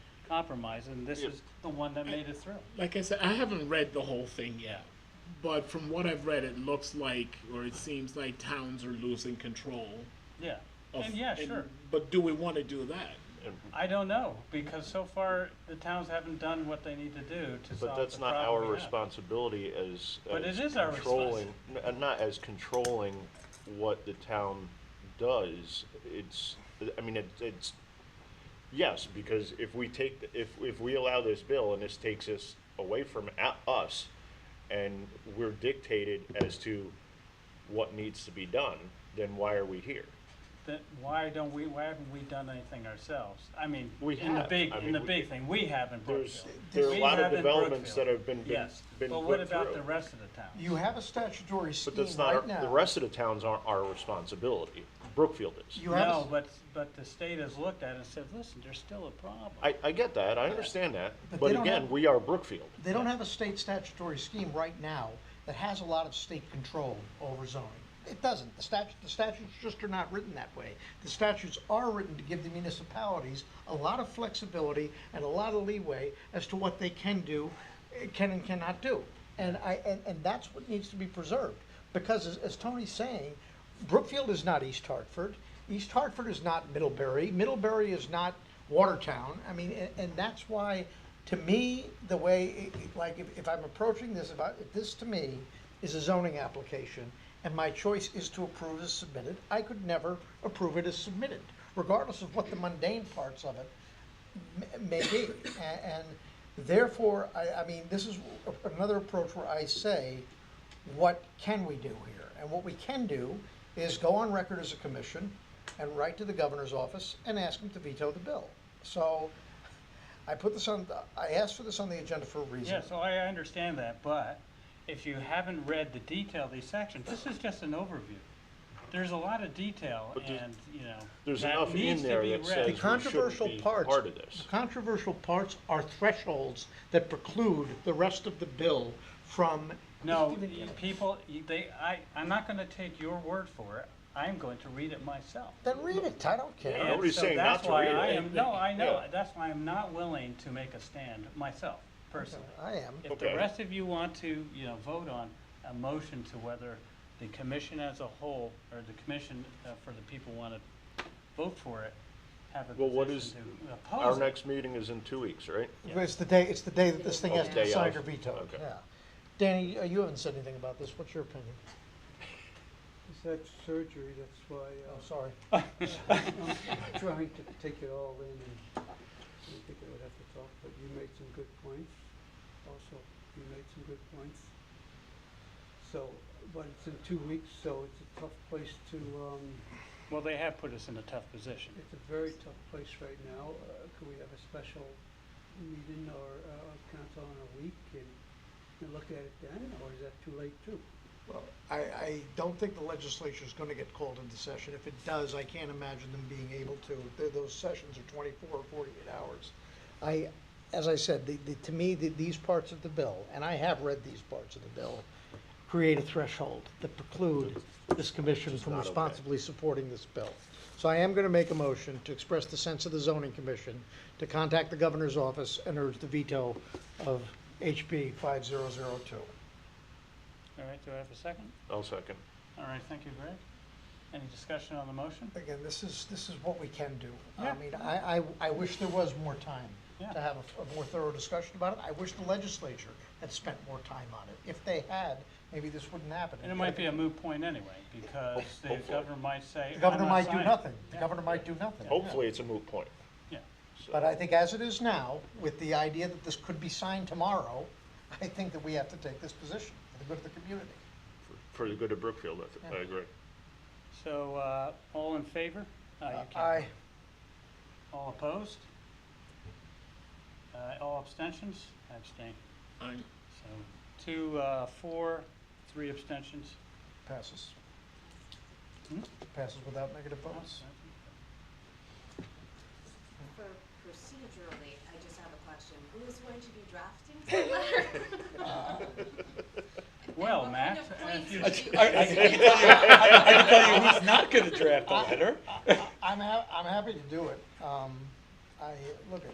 compromise, and this is the one that made it through. like I said, I haven't read the whole thing yet, but from what I've read, it looks like, or it seems like towns are losing control. Yeah. Of, And yeah, sure. But do we want to do that? I don't know, because so far, the towns haven't done what they need to do to But solve that's the not our problem we have. responsibility as. But as it is our controlling- n- Not as controlling what the town does. It's, I mean, it- it's, yes, because if we take, the- if, if we allow this bill and this takes us away from a- us and we're dictated as to what needs to be done, then why are we here? Then why don't we, why haven't we done anything ourselves? I mean, We in the have. big, I in mean, the we- big thing, we have in There's, Brookfield. there are a We lot of have in developments that Brookfield. have been, been Yes, been put through. but what about the rest of the towns? You have a statutory scheme But that's not, right our- now. the rest of the towns aren't our responsibility. Brookfield is. You have a No, s- but, but the state has looked at it and said, listen, there's still a problem. I, I get that, I understand that, But but they don't again, have- we are Brookfield. They don't have a state statutory scheme right now that has a lot of state control over zoning. It doesn't. The statute, the statutes just are not written that way. The statutes are written to give the municipalities a lot of flexibility and a lot of leeway as to what they can do, eh, can and cannot do. And I, and, and that's what needs to be preserved. Because as, as Tony's saying, Brookfield is not East Hartford. East Hartford is not Middlebury. Middlebury is not Watertown. I mean, and, and that's why, to me, the way, it- it- like, if, if I'm approaching this, if I, if this to me is a zoning application, and my choice is to approve as submitted, I could never approve it as submitted, regardless of what the mundane parts of it m- may be. A- And therefore, I, I mean, this is a- another approach where I say, what can we do here? And what we can do is go on record as a commission and write to the governor's office and ask him to veto the bill. So I put this on, I asked for this on the agenda for a reason. Yeah, so I I understand that, but if you haven't read the detail of these sections, this is just an overview. There's a lot of detail But there's- and, you know, There's that enough in needs to there be that read. says The controversial we shouldn't be parts. part of this. The controversial parts are thresholds that preclude the rest of the bill from. No, you- people, you- they, I, I'm not gonna take your word for it. I'm going to read it myself. Then read it, I don't care. Yeah, And nobody's so saying not that's to why read it. I am- No, I know. Yeah. That's why I'm not willing to make a stand myself, personally. I am. If the Okay. rest of you want to, you know, vote on a motion to whether the commission as a whole, or the commission uh, for the people want to vote for it, have a Well, what position to Our Oh, oppose it. next meeting is in two weeks, right? It's the day, it's the day that this thing Oh, has the to day be signed of. or vetoed, Okay. yeah. Danny, uh, you haven't said anything about this, what's your opinion? It's that surgery, that's why Oh, uh, sorry. I'm trying to take it all in. and I think I would have to talk, but you made some good points. Also, you made some good points. So, but it's in two weeks, so it's a tough place to, um, Well, they have put us in a tough position. it's a very tough place right now. Uh, Could we have a special meeting or uh, council in a week and and look at it then, or is that too late too? Well, I, I don't think the legislature's gonna get called into session. If it does, I can't imagine them being able to. Th- Those sessions are twenty-four or forty-eight hours. I, as I said, the, the, to me, the, these parts of the bill, and I have read these parts of the bill, create a threshold that preclude this commission from not okay. responsibly supporting this bill. So I am gonna make a motion to express the sense of the zoning commission, to contact the governor's office and urge the veto of HB five zero zero two. All right, do I have a second? I'll second. All right, thank you, Greg. Any discussion on the motion? Again, this is, this is what we can do. Yeah. I mean, I, I, I wish there was more time Yeah. to have a, a more thorough discussion about it. I wish the legislature had spent more time on it. If they had, maybe this wouldn't happen. And it might be a moot point anyway, because the Hopefully. governor might say. The governor "I'm not might do signing." nothing. The Yeah. governor might do nothing. Hopefully, it's a moot point. Yeah. So- But I think as it is now, with the idea that this could be signed tomorrow, I think that we have to take this position for the good of the community. For the good of Brookfield, I th- I Yeah. agree. So, uh, all in favor? Uh, you can't. I, All opposed? Uh, all abstentions? I abstain. I'm, So, two, uh, four, three abstentions. passes. Hmm? Passes without negative votes. All For procedurally, I just have a question. Who is going to be drafting the letter? Uh, Well, And Matt, uh, What kind of if you- points do I, I you- can tell you, I, I can tell you who's not going to draft a letter. I'm hap, I'm happy to do it. Um, I, look, it,